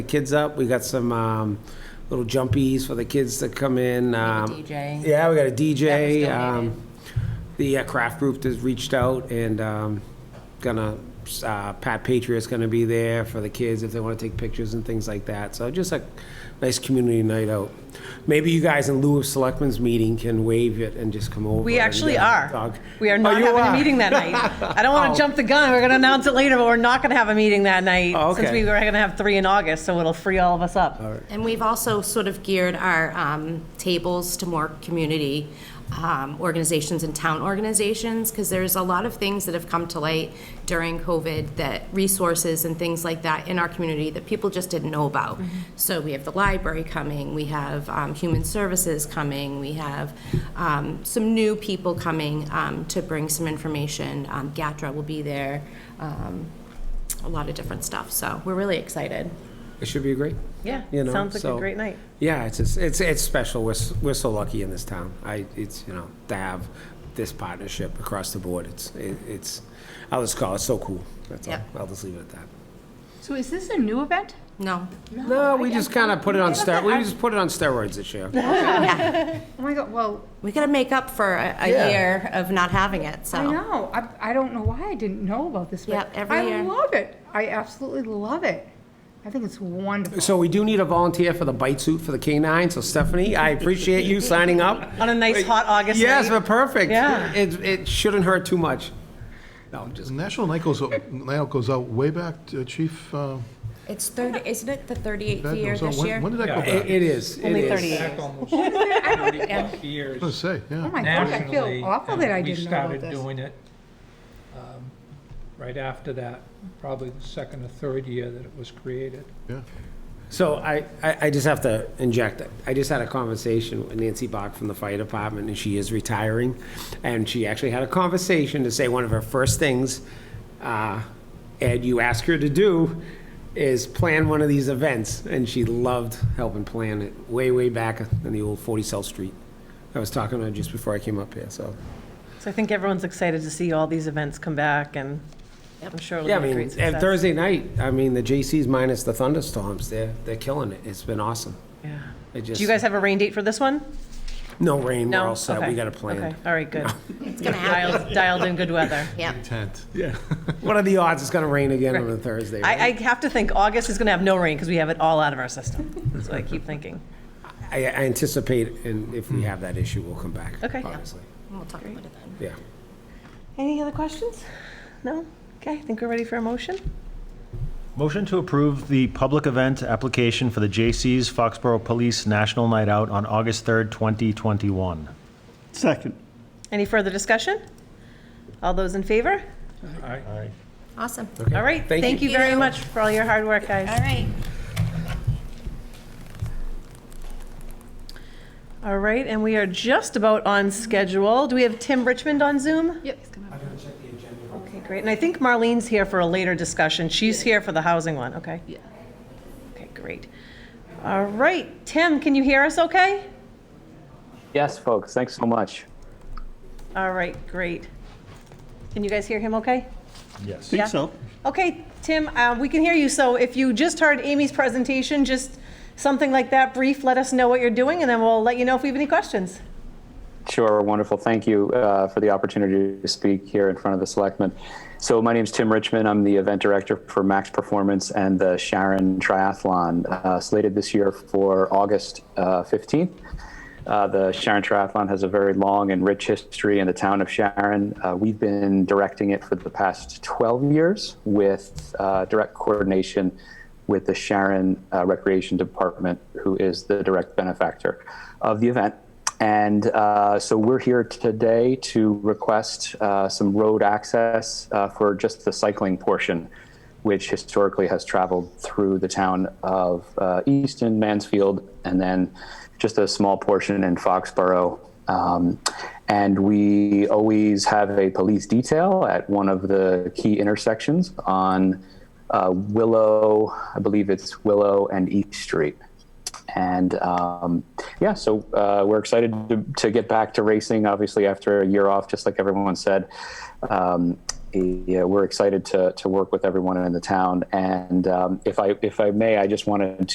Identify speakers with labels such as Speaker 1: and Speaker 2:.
Speaker 1: the kids up. We got some um, little jumpies for the kids to come in. Um,
Speaker 2: DJ.
Speaker 1: Yeah, we got a DJ.
Speaker 2: That was donated.
Speaker 1: Um, the uh, craft group has reached out and um, gonna uh, Pat Patriot's gonna be there for the kids if they want to take pictures and things like that. So just a nice community night out. Maybe you guys, in lieu of selectmen's meeting, can waive it and just come over.
Speaker 2: We
Speaker 1: and,
Speaker 2: actually
Speaker 1: uh,
Speaker 2: are.
Speaker 1: dog-
Speaker 2: We are
Speaker 1: Oh,
Speaker 2: not
Speaker 1: you
Speaker 2: having a
Speaker 1: are?
Speaker 2: meeting that night. I don't want
Speaker 1: Oh.
Speaker 2: to jump the gun. We're going to announce it later, but we're not going to have a meeting that
Speaker 1: Oh,
Speaker 2: night since
Speaker 1: okay.
Speaker 2: we were going to have three in August, so it'll free all of us up.
Speaker 3: And we've also sort of geared our um, tables to more community um, organizations and town organizations, because there's a lot of things that have come to light during COVID, that resources and things like that in our community that people just didn't know about. So we have the library coming, we have um, Human Services coming, we have um, some new people coming um, to bring some information. Um, GATRA will be there, um, a lot of different stuff, so we're really excited.
Speaker 1: It should be great.
Speaker 2: Yeah,
Speaker 1: you know,
Speaker 2: sounds like a
Speaker 1: so-
Speaker 2: great night.
Speaker 1: Yeah, it's just, it's it's special. We're s- we're so lucky in this town. I it's you know to have this partnership across the board. It's it, it's I'll just call it so cool. That's
Speaker 3: Yep.
Speaker 1: all. I'll just leave it at that.
Speaker 4: So is this a new event?
Speaker 3: No,
Speaker 1: No, we just kind of put it on
Speaker 4: ster-
Speaker 1: steroids. We just put it on steroids this year.
Speaker 4: Oh my god, well,
Speaker 3: We gotta make up for a, a
Speaker 1: Yeah.
Speaker 3: year of not having it, so.
Speaker 4: I know, I, I don't know why I didn't know about this, but
Speaker 3: Yep, every year.
Speaker 4: I love it. I absolutely love it. I think it's wonderful.
Speaker 1: So we do need a volunteer for the bite suit for the canine. So Stephanie, I appreciate you signing up.
Speaker 2: On a nice hot August night.
Speaker 1: Yes, but perfect.
Speaker 2: Yeah.
Speaker 1: It it shouldn't hurt too much. No, I'm just
Speaker 5: National Night goes, Night Out goes out way back, uh, Chief. uh,
Speaker 3: It's thirty, isn't it the thirty-eighth
Speaker 5: Bad
Speaker 3: year
Speaker 5: goes out.
Speaker 3: this
Speaker 5: When-
Speaker 3: year?
Speaker 5: When did that go back?
Speaker 1: it,
Speaker 5: I
Speaker 1: it is. it
Speaker 2: Only
Speaker 1: is.
Speaker 2: 38.
Speaker 6: back almost 30 plus years
Speaker 5: was gonna say,
Speaker 4: Oh
Speaker 5: yeah.
Speaker 4: my gosh, I
Speaker 6: nationally.
Speaker 4: feel awful that
Speaker 6: and
Speaker 4: I didn't know about
Speaker 6: We started
Speaker 4: this.
Speaker 6: doing it um, right after that, probably the second or third year that it was created.
Speaker 5: yeah.
Speaker 1: So I, I I just have to inject, I just had a conversation with Nancy Bach from the fire department, and she is retiring. And she actually had a conversation to say one of her first things, uh, Ed, you ask her to do, is plan one of these events. And she loved helping plan it way, way back in the old 40 South Street. I was talking to her just before I came up here, so.
Speaker 2: So I think everyone's excited to see all these events come back, and I'm sure
Speaker 1: Yeah, I
Speaker 2: it'll be a
Speaker 1: mean,
Speaker 2: great
Speaker 1: and
Speaker 2: success.
Speaker 1: Thursday night, I mean, the J.C.'s minus the thunderstorms, they're, they're killing it. It's been awesome.
Speaker 2: Yeah.
Speaker 1: It
Speaker 2: Do
Speaker 1: just,
Speaker 2: you guys have a rain date for this one?
Speaker 1: no rain, we're
Speaker 2: No?
Speaker 1: all set,
Speaker 2: Okay.
Speaker 1: we got a plan.
Speaker 2: Okay, all right, good.
Speaker 3: It's gonna happen,
Speaker 2: Dialed dialed in good weather.
Speaker 3: yep.
Speaker 5: Tent.
Speaker 1: Yeah. What are the odds it's going to rain again on a Thursday?
Speaker 2: I, I
Speaker 1: right?
Speaker 2: have to think August is going to have no rain because we have it all out of our system. That's what I keep thinking.
Speaker 1: I, I anticipate, and if we have that issue, we'll come back.
Speaker 2: Okay.
Speaker 1: Obviously.
Speaker 3: We'll talk about it then.
Speaker 1: Yeah.
Speaker 2: Any other questions? No? Okay, I think we're ready for a motion.
Speaker 7: Motion to approve the public event application for the J.C.'s Foxborough Police National Night Out on August 3rd, 2021.
Speaker 8: Second.
Speaker 2: Any further discussion? All those in favor?
Speaker 6: All right.
Speaker 3: Awesome.
Speaker 2: All right,
Speaker 1: Thank
Speaker 2: thank
Speaker 1: you.
Speaker 2: you very much for all your hard work, guys.
Speaker 3: All right.
Speaker 2: All right, and we are just about on schedule. Do we have Tim Richmond on Zoom?
Speaker 4: Yep, it's coming up.
Speaker 2: Okay, great. And I think Marlene's here for a later discussion. She's here for the housing one, okay? Yeah. Okay, great. All right, Tim, can you hear us okay?
Speaker 9: Yes, folks, thanks so much.
Speaker 2: All right, great. Can you guys hear him okay?
Speaker 7: Yes.
Speaker 2: Yeah.
Speaker 8: Think so.
Speaker 2: Okay, Tim, uh, we can hear you. So if you just heard Amy's presentation, just something like that brief, let us know what you're doing, and then we'll let you know if we have any questions.
Speaker 9: Sure, wonderful. Thank you uh, for the opportunity to speak here in front of the selectmen. So my name's Tim Richmond. I'm the event director for Max Performance and the Sharon Triathlon, uh, slated this year for August uh, 15th. Uh, the Sharon Triathlon has a very long and rich history in the town of Sharon. Uh, we've been directing it for the past 12 years with uh, direct coordination with the Sharon uh, Recreation Department, who is the direct benefactor of the event. And uh, so we're here today to request uh, some road access uh, for just the cycling portion, which historically has traveled through the town of uh, Easton, Mansfield, and then just a small portion in Foxborough. Um, and we always have a police detail at one of the key intersections on uh, Willow, I believe it's Willow and East Street. And um, yeah, so uh, we're excited to, to get back to racing, obviously, after a year off, just like everyone said. Um, yeah, we're excited to, to work with everyone in the town. And um, if I if I may, I just wanted